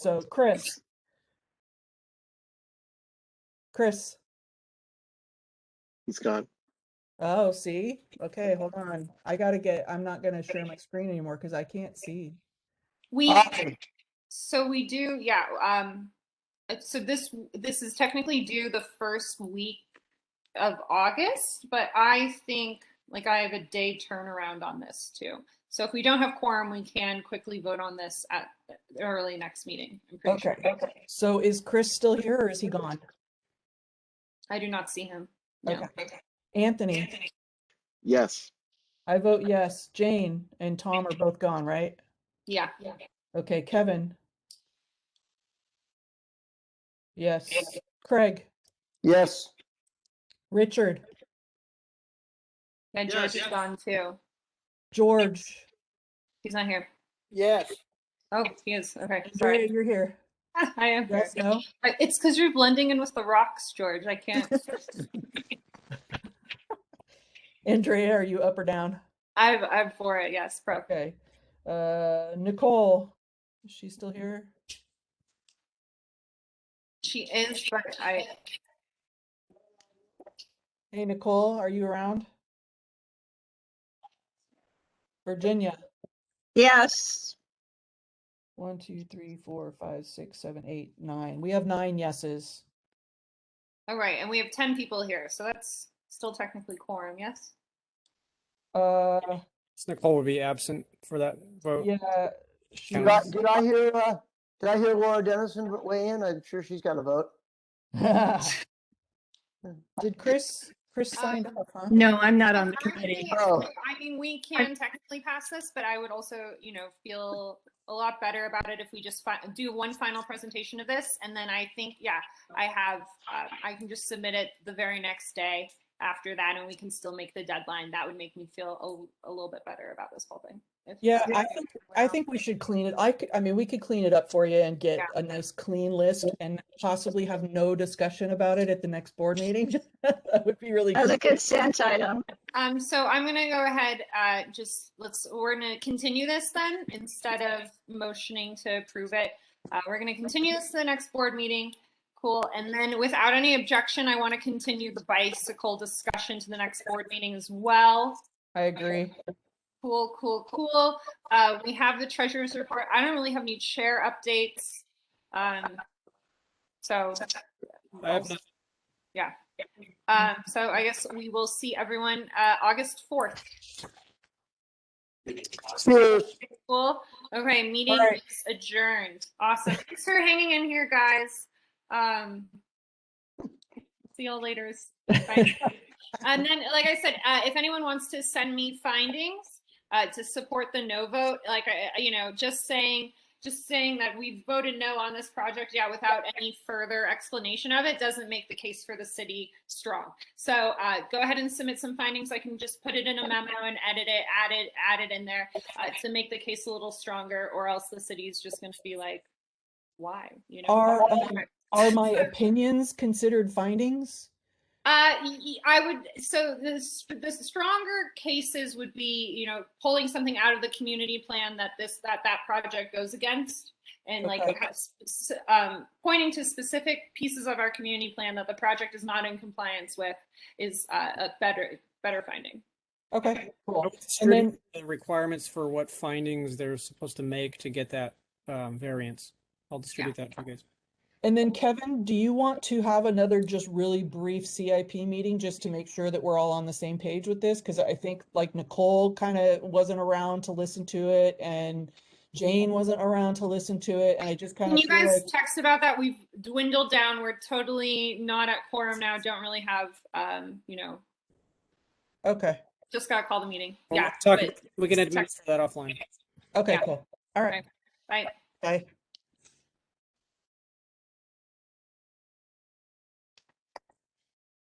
So Chris, Chris. He's gone. Oh, see? Okay, hold on. I gotta get, I'm not gonna share my screen anymore because I can't see. We, Awesome. so we do, yeah, um, uh, so this, this is technically due the first week of August, but I think, like, I have a day turnaround on this too. So if we don't have quorum, we can quickly vote on this at the early next meeting. I'm pretty sure. Okay. So is Chris still here or is he gone? I do not see him. No. Anthony, Yes. I vote yes. Jane and Tom are both gone, right? Yeah, Okay, Kevin. Yes. Craig, Yes. Richard, and Yes, George is yes. gone too. George, He's not here. Yes. Oh, he is. Okay, Andrea, sorry. you're here. I am. here. Yes, no? I- It's because you're blending in with the rocks, George. I can't. Andrea, are you up or down? I'm, I'm for it. Yes, pro. Okay. Uh, Nicole, is she still here? She is, but I, Hey, Nicole, are you around? Virginia, Yes, one, two, three, four, five, six, seven, eight, nine. We have nine yeses. all right, and we have ten people here, so that's still technically quorum, yes? Uh, So Nicole would be absent for that vote. yeah. she Did Oh. Can we- I, was- did I hear, uh, did I hear Laura Dennison weigh in? I'm sure she's got a vote. Did Chris, Chris signed up, huh? no, I'm not on the committee. Oh. I mean, we can technically pass this, but I would also, you know, feel a lot better about it if we just fi- do one final presentation of this, and then I think, yeah, I have, uh, I can just submit it the very next day after that, and we can still make the deadline. That would make me feel a, a little bit better about this whole thing. if- Yeah, I if think- we're I out. think we should clean it. I could, I mean, we could clean it up for you and get Yeah. a nice clean list and possibly have no discussion about it at the next board meeting. That would be really As good. a consent item, Um, so I'm gonna go ahead, uh, just, let's, we're gonna continue this then, instead of motioning to approve it. Uh, we're gonna continue this to the next board meeting. Cool, and then without any objection, I wanna continue the bicycle discussion to the next board meeting as well. I agree. Cool, cool, cool. Uh, we have the treasurer's report. I don't really have any chair updates. Um, so. I have not- Um, so I guess we will see everyone, uh, August fourth. Cheers. Cool. Okay, meeting right. is adjourned. Awesome. Thanks for hanging in here, guys. Um, see you all later. Bye. and then, like I said, uh, if anyone wants to send me findings uh, to support the no vote, like I, I- you know, just saying, just saying that we voted no on this project, yeah, without any further explanation of it, doesn't make the case for the city strong. So uh, go ahead and submit some findings. I can just put it in a memo and edit it, add it, add it in there uh, to make the case a little stronger, or else the city's just going to be like, why? You know. Are, um, Are my opinions considered findings? Uh, y- y- I would, so the, s- the stronger cases would be, you know, pulling something out of the community plan that this, that, that project goes against. And like, Okay. has- s- um, pointing to specific pieces of our community plan that the project is not in compliance with is, uh, a better, better finding. Okay, I cool. was screwed then- up the Requirements for what findings they're supposed to make to get that um, variance. I'll distribute that to you guys. And then Kevin, do you want to have another just really brief CIP meeting just to make sure that we're all on the same page with this? Because I think like Nicole kind of wasn't around to listen to it and Jane wasn't around to listen to it. And I just kind Can of you feel like, guys text about that? We've dwindled down. We're totally not at quorum now. Don't really have, um, you know, okay, just gotta call the meeting. Well, Yeah. talk- but- We can text- administer that offline. okay, Yeah. cool. All right. Bye. Bye.